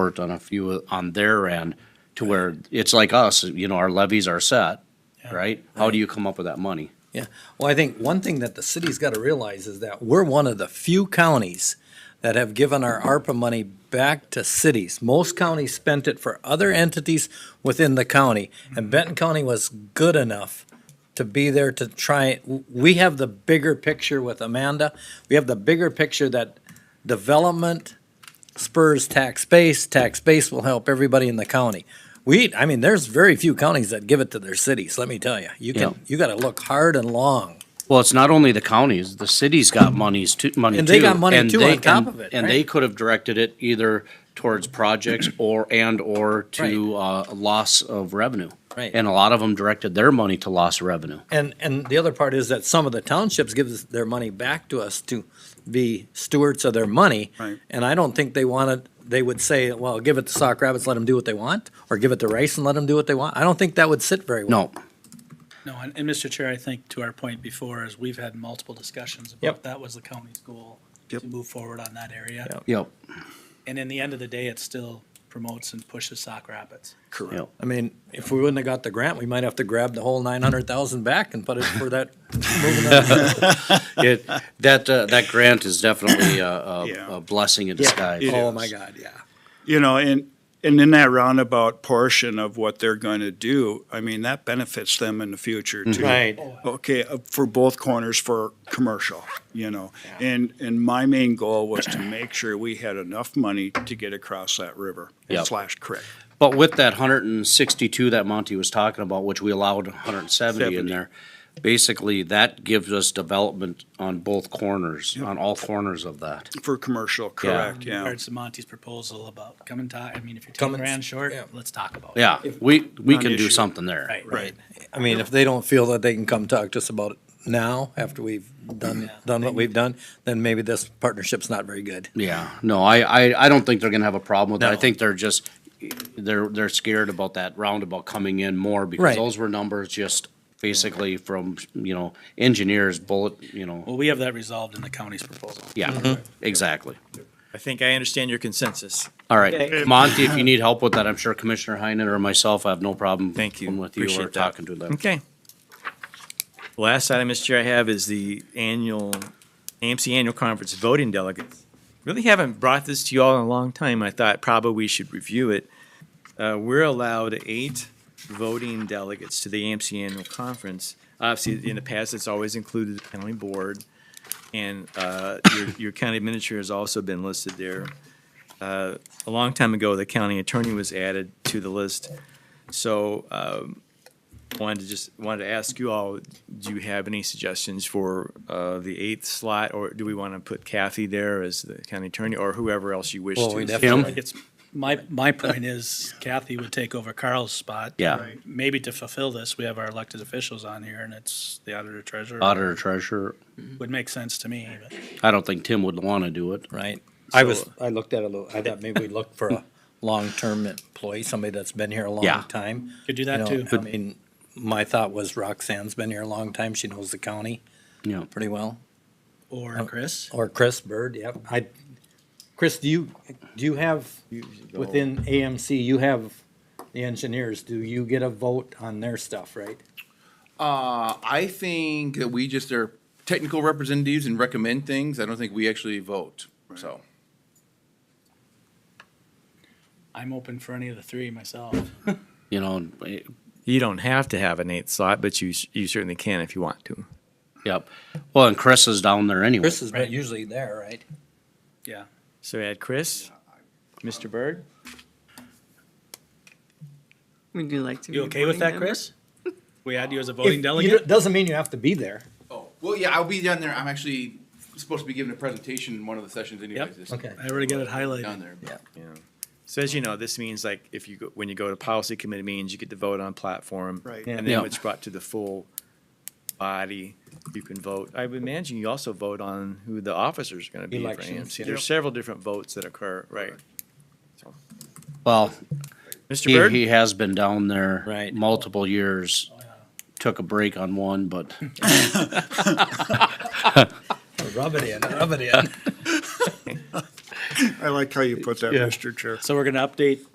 worked on a few on their end to where it's like us, you know, our levies are set, right? How do you come up with that money? Yeah, well, I think one thing that the city's got to realize is that we're one of the few counties that have given our ARPA money back to cities. Most counties spent it for other entities within the county, and Benton County was good enough to be there to try, we have the bigger picture with Amanda. We have the bigger picture that development spurs tax base, tax base will help everybody in the county. We, I mean, there's very few counties that give it to their cities, let me tell you. You Yeah. can, you gotta look hard and long. Well, it's not only the counties, the city's got monies too, money too. And they got money and too they- on top and- of it, And right? they could have directed it either towards projects or, and/or to, uh, loss of revenue. Right. And a lot of them directed their money to loss of revenue. And, and the other part is that some of the townships give us- their money back to us to be stewards of their money. Right. And I don't think they wanted, they would say, well, give it to Sock Rapids, let them do what they want, or give it to Rice and let them do what they want. I don't think that would sit very well. No, No, and, and Mr. Chair, I think to our point before is we've had multiple discussions Yep. about that was the county's goal Yep. to move forward on that area. Yep. yep, And in the end of the day, it still promotes and pushes Sock Rapids. yep. I mean, if we wouldn't have got the grant, we might have to grab the whole nine hundred thousand back and put it for that. moving on. It, that, uh, that grant is definitely a, a, Yeah. a blessing in disguise. It Oh, is. my God, yeah. You know, and, and in that roundabout portion of what they're going to do, I mean, that benefits them in the future too. Right. Okay, uh, for both corners for commercial, you know. And, and my main goal was to make sure we had enough money to get across that river Yep. slash creek. But with that hundred and sixty-two that Monty was talking about, which we allowed hundred and seventy in Seventy. there, basically that gives us development on both corners, on all corners of that. For commercial, correct, In yeah. regards to Monty's proposal about come and talk, I mean, if you're ten Come and- grand short, yeah. let's talk about it. Yeah, we, we can do Non-issue. something there. Right. Right. I mean, if they don't feel that they can come talk to us about it now, after we've done, done what we've done, then maybe this partnership's not very good. Yeah, no, I, I, I don't think they're gonna have a problem with it. I No. think they're just, they're, they're scared about that roundabout coming in more because Right. those were numbers just basically from, you know, engineers bullet, you know, Well, we have that resolved in the county's proposal. yeah, exactly. I think I understand your consensus. All right, Monty, if you need help with that, I'm sure Commissioner Heinen or myself, I have no problem. Thank you. With you or Appreciate that. talking to them. Okay. The Last item, Mr. Chair, I have is the annual, AMC Annual Conference Voting Delegates. Really haven't brought this to you all in a long time. I thought probably we should review it. Uh, we're allowed eight voting delegates to the AMC Annual Conference. Obviously, in the past, it's always included the county board. And, uh, your, your county administrator has also been listed there. Uh, a long time ago, the county attorney was added to the list. So, um, wanted to just, wanted to ask you all, do you have any suggestions for uh, the eighth slot? Or do we want to put Kathy there as the county attorney or whoever else you wish to? Well, we Like definitely, it's, my, my point is Kathy would take over Carl's spot. Yeah. Right. Maybe to fulfill this, we have our elected officials on here and it's the auditor treasurer. Auditor treasurer, Would make sense to me, but. I don't think Tim would wanna do it. right? I was, So- I looked at it a little, I thought maybe we'd look for a long-term employee, somebody that's been here a long Yeah. time. Could do that You know, too. I mean, my thought was Roxanne's been here a long time, she knows the county Yeah. pretty well. Or Chris? Or Chris Bird, yep. I, Chris, do you, do you have, within AMC, you have the engineers, do you get a vote on their stuff, right? Uh, I think that we just are technical representatives and recommend things. I don't think we actually vote, so. I'm open for any of the three myself. You know, eh, You don't have to have an eighth slot, but you, s- you certainly can if you want to. yep. Well, and Chris is down there anyway. Chris is not Right. usually there, right? Yeah. So add Chris, Mr. Byrd? Would you like to? You be okay with voting that, member? Chris? We add you as a If voting you delegate? don't- Doesn't mean you have to be there. Oh, well, yeah, I'll be down there. I'm actually supposed to be giving a presentation in one of the sessions anyways. this- Okay. I already got it highlighted. Down there. Yeah. So as you know, this means like if you, go when you go to policy committee meetings, you get to vote on platform. Right. And Yeah. then it's brought to the full body, you can vote. I would imagine you also vote on who the officers are going to be for Elections, AMC. yeah. There's several different votes that occur, right? Well, Mr. he, Byrd? he has been down there. Right. Multiple years. Took a break on one, but Rub it in, rub it in. I like how you put that, Yeah. Mr. Chair. So we're going to update